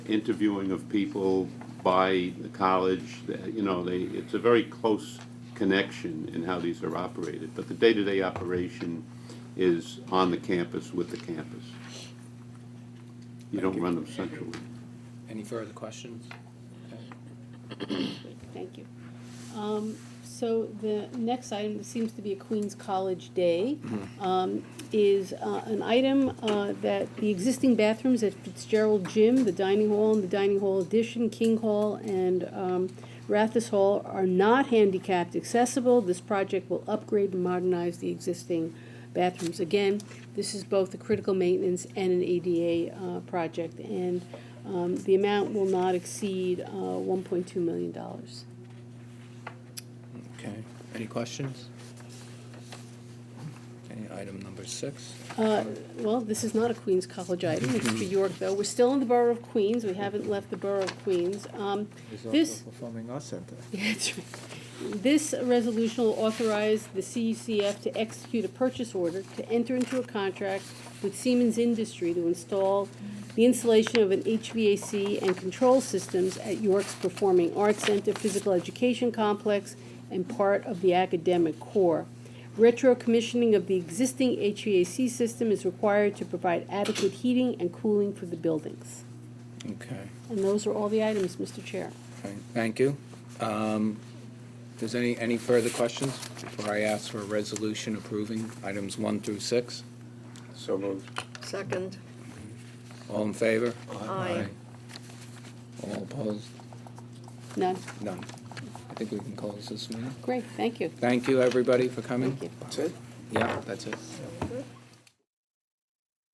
interviewing of people by the college, that, you know, they, it's a very close connection in how these are operated. But the day-to-day operation is on the campus with the campus. You don't run them centrally. Any further questions? Great, Thank you. Um, So the next item, this seems to be a Queens College Day, um, is uh, an item uh, that the existing bathrooms at Fitzgerald Gym, the dining hall and the dining hall addition, King Hall and um, Rathis Hall are not handicapped accessible. This project will upgrade and modernize the existing bathrooms. Again, this is both a critical maintenance and an ADA uh, project, and um, the amount will not exceed uh, $1.2 million. Okay, any questions? Okay, item number six. Uh, Well, this is not a Queens College item, it's to York, though. We're still in the borough of Queens, we haven't left the borough of Queens. Um, There's This, also a performing arts center. Yeah, that's right. This resolution will authorize the CECF to execute a purchase order to enter into a contract with Siemens Industry to install the installation of an HVAC and control systems at York's Performing Arts Center Physical Education Complex and part of the academic core. Retro commissioning of the existing HVAC system is required to provide adequate heating and cooling for the buildings. Okay, And those are all the items, Mr. Chair. all right, thank you. Um, Does any, any further questions before I ask for a resolution approving items one through six? So moved. Second, All in favor? Aye. All opposed? None. None. I think we can close this meeting. Great, thank you. Thank you, everybody, for coming. Thank you. That's it? Yeah, that's it.